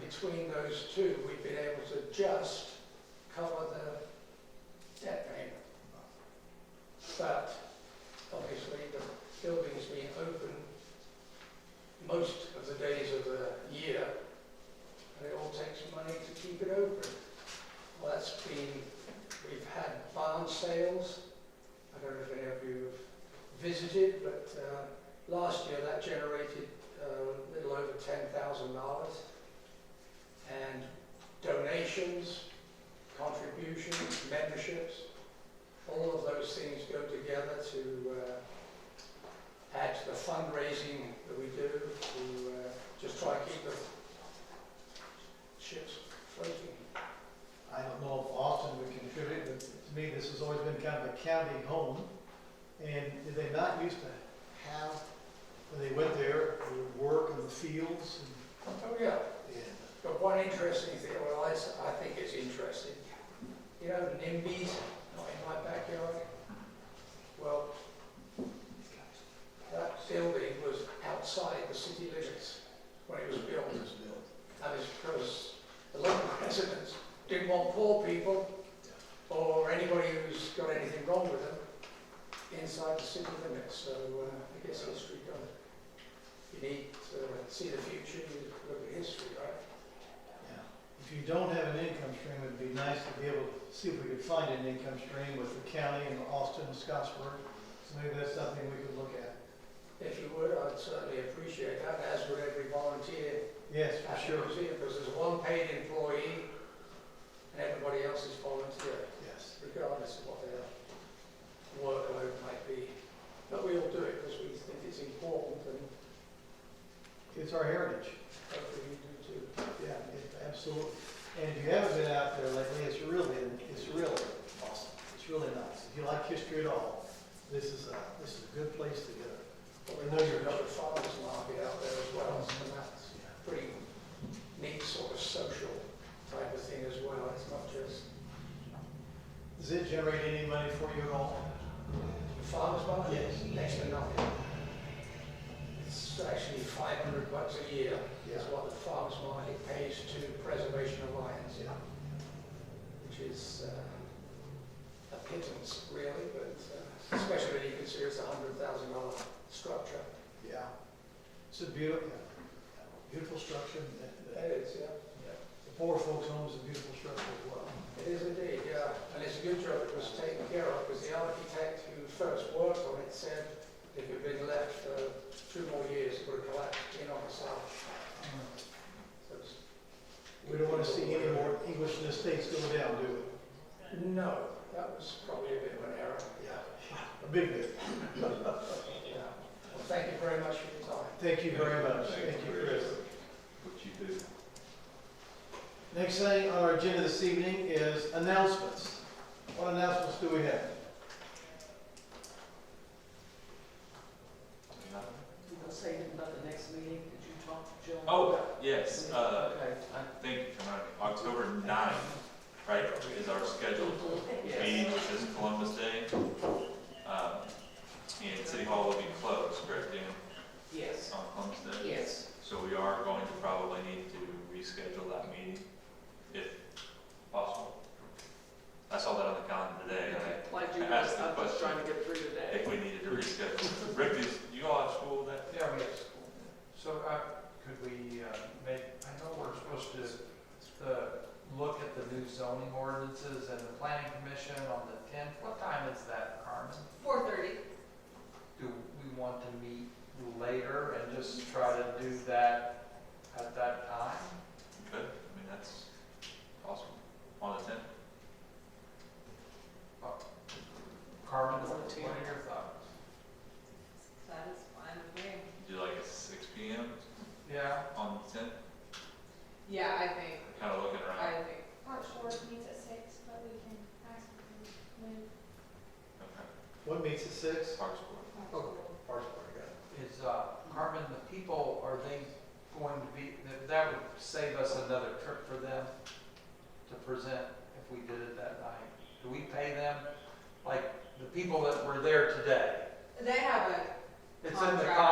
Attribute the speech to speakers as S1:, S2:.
S1: between those two, we've been able to just cover the debt payment. But obviously, the building's been open most of the days of the year, and it all takes money to keep it open. Well, that's been, we've had barn sales. I don't know if any of you have visited, but uh, last year that generated uh, a little over $10,000. And donations, contributions, memberships, all of those things go together to uh, add to the fundraising that we do to uh, just try and keep the ships floating.
S2: I don't know if Austin would contribute, but to me, this has always been kind of a county home. And did they not used to have, when they went there, they would work in the fields
S1: Oh, yeah.
S2: and, and
S1: But one interesting thing, well, I, s- I think it's interesting. You know, NIMBYs, not in my backyard. Well, that building was outside the city limits when it was built.
S2: it was built.
S1: That is because the local residents didn't want poor people or anybody who's got anything wrong with them inside the city limits. So uh, I guess history does. You need to see the future, you look at history, right?
S2: Yeah. If you don't have an income stream, it'd be nice to be able to see if we could find an income stream with the county and Austin and Scottsburg. So maybe that's something we could look at.
S1: If you would, I'd certainly appreciate that, as would every volunteer
S2: Yes,
S1: at the
S2: for sure.
S1: museum, because there's one paid employee and everybody else is volunteer,
S2: Yes.
S1: regardless of what their workload might be. But we all do it because we think it's important and
S2: It's our heritage.
S1: hopefully you do too.
S2: Yeah, it- absolutely. And if you haven't been out there lately, it's really, it's really awesome. It's really nice. If you like history at all, this is a, this is a good place to go.
S1: But we know you've got the farmers market out there as well, so that's a pretty neat sort of social type of thing as well. It's not just
S2: Does it generate any money for you at all?
S1: The farmer's market?
S2: Yes.
S1: Next to nothing. It's actually five hundred bucks a year is what the farmer's market pays to Preservation Alliance,
S2: Yeah.
S1: which is uh, a pittance really, but uh, especially when you consider it's a hundred thousand dollar structure.
S2: Yeah. It's a beautiful, beautiful structure. The-
S1: It
S2: The
S1: is, yeah.
S2: the poor folks' home is a beautiful structure as well.
S1: It is indeed, yeah. And it's a good job it was taken care of because the architect who first worked on it said if it had been left for two more years, it would have collapsed in on itself. So it's
S2: We don't want to see any more English in the States go down, do we?
S1: No, that was probably a bit of an error.
S2: Yeah. A big bit.
S1: Yeah. Well, thank you very much for your time.
S2: Thank you very much.
S3: Thank you, Chris. What you do.
S2: Next thing on our agenda this evening is announcements. What announcements do we have?
S4: You gonna say anything about the next meeting? Did you talk to Joe?
S3: Oh, yes,
S4: Okay,
S3: uh,
S4: I-
S3: thank you for reminding me. October ninth, right, is our scheduled meeting,
S4: Yes.
S3: which is Columbus Day. Um, and City Hall will be closed, correct, Dan,
S4: Yes.
S3: on Columbus Day?
S4: Yes.
S3: So we are going to probably need to reschedule that meeting, if possible. I saw that on the calendar today, and
S4: Like you,
S3: I
S4: guys,
S3: asked the
S4: I'm just
S3: question.
S4: trying to get through
S3: I
S4: today.
S3: think we needed to reschedule. Rick, is, you all at school that?
S5: Yeah, we have school. So, uh, could we, uh, make, I know we're supposed to, uh, look at the new zoning ordinances and the planning commission on the tenth. What time is that, Carmen?
S6: Four thirty,
S5: Do we want to meet later and just try to do that at that time?
S3: Good, I mean, that's awesome. On the tenth?
S5: Carmen, what
S4: Fourteen.
S5: are your thoughts?
S6: that is fine with me.
S3: Do like at six P M
S5: Yeah,
S3: on the tenth,
S6: Yeah, I think,
S3: kind of looking
S6: I
S3: around.
S6: think,
S7: March fourth meets at six, but we can ask when.
S3: Okay,
S2: What meets at six?
S3: Parks Board.
S2: Oh, Parks Board, yeah.
S5: is, uh, Carmen, the people, are they going to be, that- that would save us another trip for them to present if we did it that night. Do we pay them, like, the people that were there today?
S6: they have a
S5: It's in the
S6: Contract.
S5: contract.